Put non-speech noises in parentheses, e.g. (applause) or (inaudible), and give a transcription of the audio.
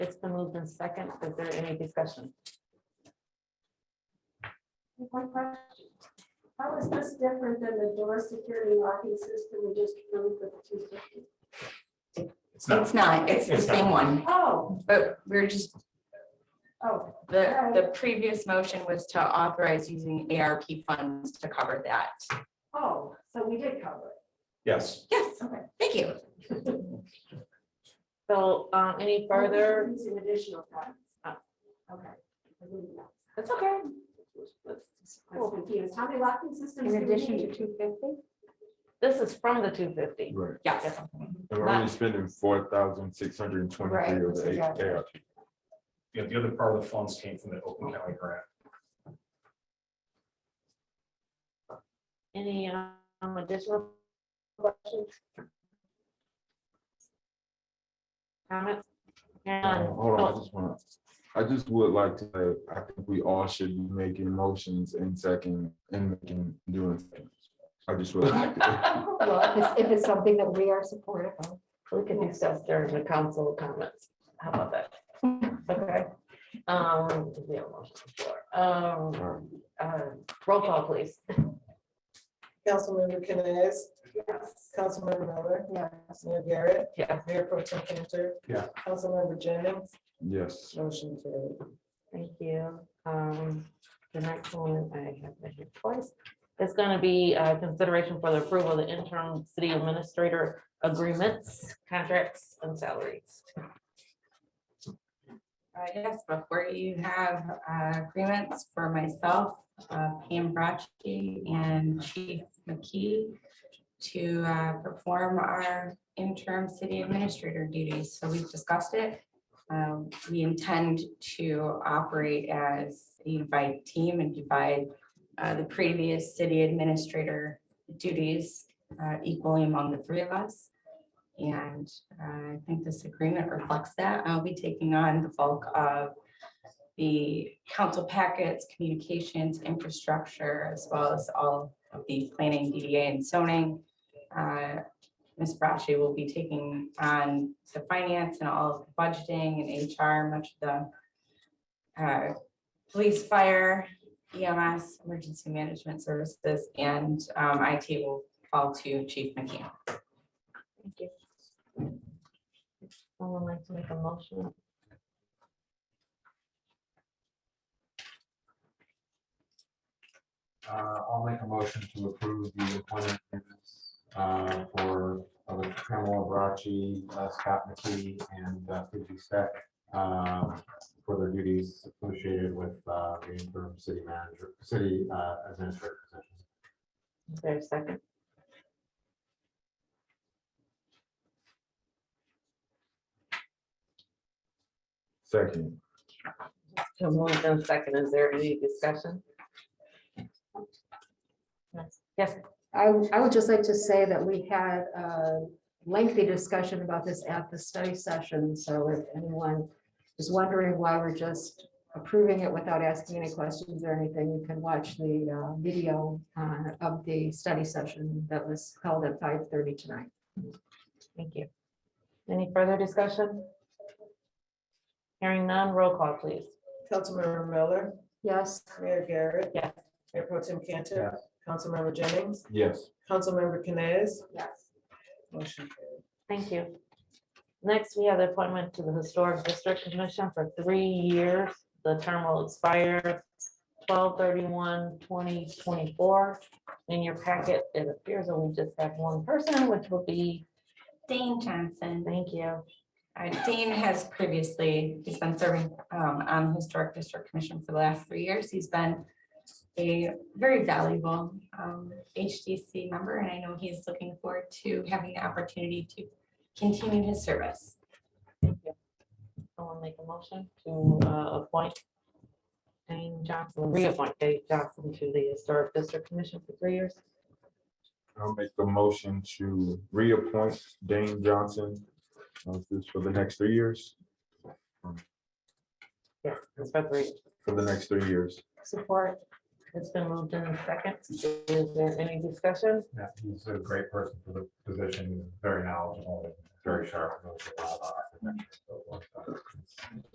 and second. Is there any discussion? One question. How is this different than the door security locking system we just approved for the two fifty? It's It's not, it's the It's not. same one, Oh, but we're just, oh, the, the previous motion was to authorize using ARP funds to cover that. oh, so we did cover Yes, Yes, it, okay. thank you. So um, any further, Some additional funds. Ah. Okay. I believe that. that's okay. I was confused. How many locking systems? In do we addition to need? two fifty? This is from the two fifty. Right, Yes, and we're only spending four thousand six hundred and twenty-three Right, of the eight yeah. K. yeah, the other part of the funds came from the Oakland County grant. Any um, additional questions? Comments? And, Uh, Hold on, I oh, just want, I just would like to, say, I think we all should be making motions in second, and making, doing. seconds. I just would like (laughs) to. well, if it's- if it's something that we are supportive of, we can discuss during the council comments. How about that? Okay. Um, we have a motion on the floor. Um, All right. uh, roll call, please. Councilmember Canes, Yes. Councilmember Miller, Yes. Mayor Garrett, Yeah. Mayor Pro Tem Cantor. Yeah. Councilmember Jennings, Yes, motion carried. Thank you. Um, the next one, I have it here twice. It's gonna be uh, consideration for the approval of the interim city administrator agreements, contracts and salaries. Uh, Yes, before you have uh, agreements for myself, uh, Pam Brachke and Chief McKee to uh, perform our interim city administrator duties. So we've discussed it. Um, We intend to operate as a unified team and divide uh, the previous city administrator duties uh, equally among the three of us. And uh, I think this agreement reflects that. I'll be taking on the bulk of the council packets, communications, infrastructure, as well as all of the planning, DDA, and zoning. Uh, Ms. Braschi will be taking on the finance and all of the budgeting and HR, much of the uh, police, fire, EMS, emergency management services, and um, IT will fall to Chief McKeon. Thank you. Someone like to make a motion? Uh, I'll make a motion to approve the appointment agreements, uh, for uh, Pamela Bracci, uh, Scott McKee, and uh, Fuji Sec um, for their duties associated with uh, the interim city manager, city uh, administrator position. Is there a second? second, So moved and second, is there any discussion? Yes, I, w- I would just like to say that we had a lengthy discussion about this at the study session, so if anyone is wondering why we're just approving it without asking any questions or anything, you can watch the uh, video uh, of the study session that was held at five thirty tonight. thank you. Any further discussion? Hearing none, roll call, please. Councilmember Miller, Yes, Mayor Garrett. Yes. Mayor Pro Tem Cantor, Councilmember Jennings, yes. Councilmember Canes, Yes. motion carried. Thank you. Next, we have the appointment to the Historic District Commission for three years. The term will expire 2024. In your packet, it appears that we just have one person, which will be, Dane Johnson. thank you. Uh, Dean has previously, he's been serving um, on the Historic District Commission for the last three years. He's been a very valuable um, HDC member, and I know he's looking forward to having the opportunity to continue his service. Someone make a motion to uh, appoint Dane Johnson, reappoint Dane Johnson to the Historic District Commission for three years. I'll make the motion to reappoint Dane Johnson. uh, this for the next three years, Yes, it's for three. for the next three years. support. It's been moved in second. Is there any discussion? Yeah, He's a great person for the position, very knowledgeable, very sharp, knows a lot about architecture. and so forth.